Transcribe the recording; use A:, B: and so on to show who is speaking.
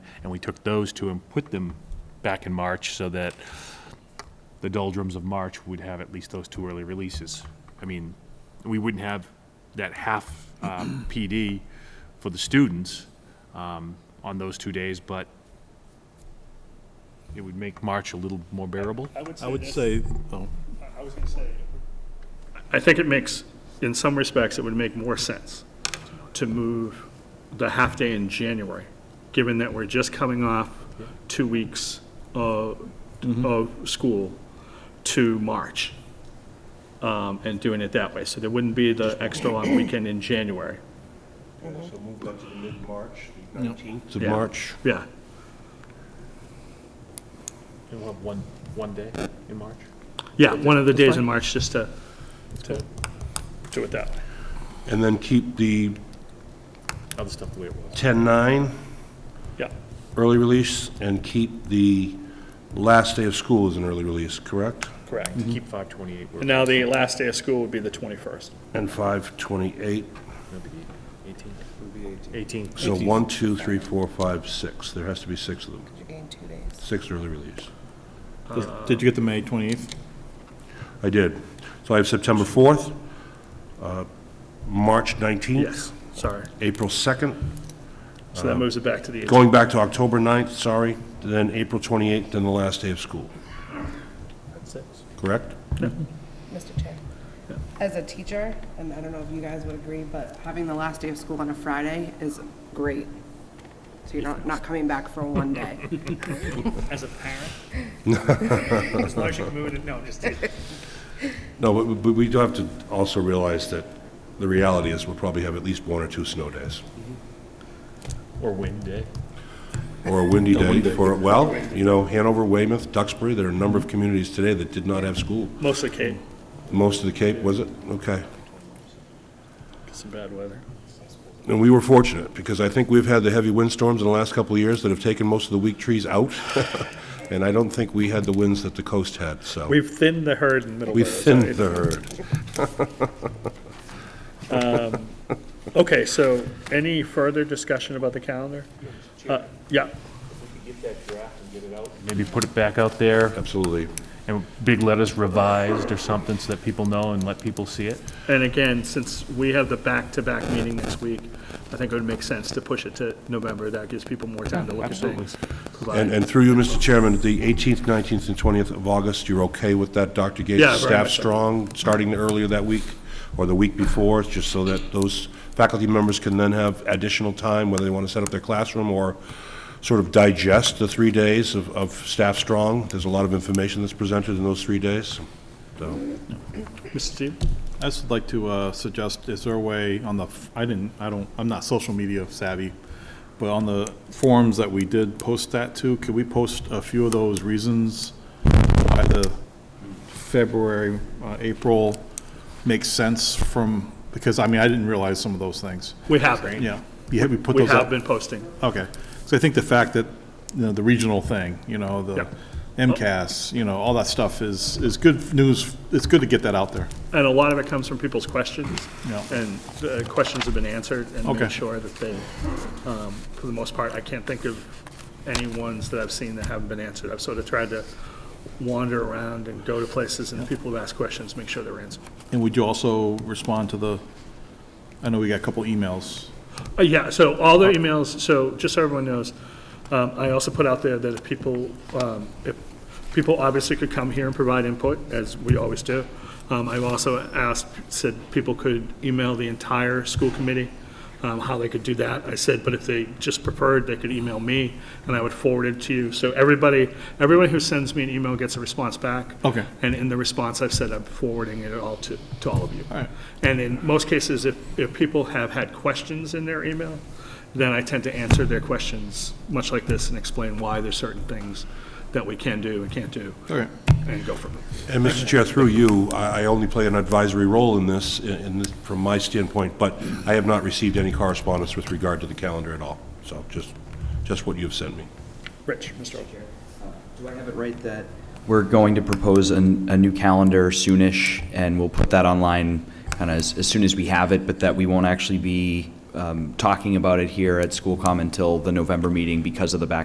A: And we took those two and put them back in March so that the doldrums of March would have at least those two early releases. I mean, we wouldn't have that half um, PD for the students um, on those two days, but it would make March a little more bearable.
B: I would say, oh,
C: I was gonna say. I think it makes, in some respects, it would make more sense to move the half-day in January, given that we're just coming off two weeks of,
B: Mm-hmm.
C: of school to March, um, and doing it that way. So there wouldn't be the extra long weekend in January.
D: Yeah, so move that to the mid-March, the 19th.
B: to
C: Yeah.
B: March.
C: Yeah,
A: We'll have one, one day in March.
C: yeah, one of the days in March, just to, to do it that way.
D: And then keep the
A: Other stuff the way it was.
D: 10-9
C: Yeah,
D: early release and keep the last day of school as an early release, correct?
C: correct.
B: Mm-hmm.
A: Keep 528, we're
C: And now the last day of school would be the 21st.
D: And 5-28,
A: gonna be 18. Would be 18. 18.
D: so 1, 2, 3, 4, 5, 6. There has to be six of them,
E: You gain two days.
D: six early release.
B: Does-
C: Uh,
B: Did you get the May 28th?
D: I did. So I have September 4th, uh, March 19th.
C: Yes, sorry.
D: April
C: So
D: 2nd, Uh-huh.
C: that moves it back to the 18th.
D: going back to October 9th, sorry, then April 28th, then the last day of school, correct?
E: Mr. Chair, as a teacher, and I don't know if you guys would agree, but having the last day of school on a Friday is great. So you're not, not coming back for one day.
C: As a parent? As long as you can move it, no, just.
D: No, but, but we do have to also realize that the reality is we'll probably have at least one or two snow days,
A: Or wind day.
D: or a windy day for, well, you know, Hanover, Weymouth, Duxbury, there are a number of communities today that did not have school.
C: Mostly Kate,
D: Most of the Cape, was it? Okay.
C: some bad weather.
D: And we were fortunate, because I think we've had the heavy windstorms in the last couple of years that have taken most of the weak trees out, and I don't think we had the winds that the coast had, so.
C: We've thinned the herd in
D: We
C: Middleborough.
D: thinned the herd.
C: Okay, so any further discussion about the calendar? Uh, Yeah,
A: Maybe put it back out there
D: Absolutely.
A: and big letters revised or something so that people know and let people see it.
C: and again, since we have the back-to-back meeting next week, I think it would make sense to push it to November. That gives people more time to look at things. But-
D: And, and through you, Mr. Chairman, the 18th, 19th, and 20th of August, you're okay with that, Dr. Gates?
C: Yeah, very
D: Staff
C: much so.
D: strong, starting earlier that week, or the week before, just so that those faculty members can then have additional time, whether they want to set up their classroom or sort of digest the three days of, of staff strong. There's a lot of information that's presented in those three days, so.
C: Mr. Steve?
B: I just would like to uh, suggest, is there a way on the, f- I didn't, I don't, I'm not social media savvy, but on the forums that we did post that to, could we post a few of those reasons why the February, uh, April makes sense from, because, I mean, I didn't realize some of those things.
C: We have been.
B: Yeah, yeah, we put
C: We
B: those up.
C: have been posting.
B: Okay, so I think the fact that, you know, the regional thing, you know, the
C: Yep.
B: MCAS, you know, all that stuff is, is good news, it's good to get that out there.
C: And a lot of it comes from people's questions.
B: Yeah.
C: And the questions have been answered and
B: Okay.
C: made sure that they, um, for the most part, I can't think of any ones that I've seen that haven't been answered. I've sort of tried to wander around and go to places and people have asked questions, make sure they're answered.
B: And would you also respond to the, I know we got a couple emails.
C: Uh, Yeah, so all the emails, so just so everyone knows, um, I also put out there that if people, um, if people obviously could come here and provide input, as we always do. Um, I've also asked, said people could email the entire school committee, um, how they could do that. I said, but if they just preferred, they could email me, and I would forward it to you. So everybody, everyone who sends me an email gets a response back.
B: Okay.
C: And in the response, I've said I'm forwarding it all to, to all of you.
B: right.
C: And in most cases, if, if people have had questions in their email, then I tend to answer their questions, much like this, and explain why there's certain things that we can do and can't do,
B: Okay.
C: and go from there.
D: And Mr. Chair, through you, I, I only play an advisory role in this, in, in this- from my standpoint, but I have not received any correspondence with regard to the calendar at all, so just, just what you've sent me.
C: Rich, Mr. O'Carroll.
F: Do I have it right that we're going to propose an, a new calendar soonish, and we'll put that online kind of as, as soon as we have it, but that we won't actually be um, talking about it here at school comm until the November meeting because of the back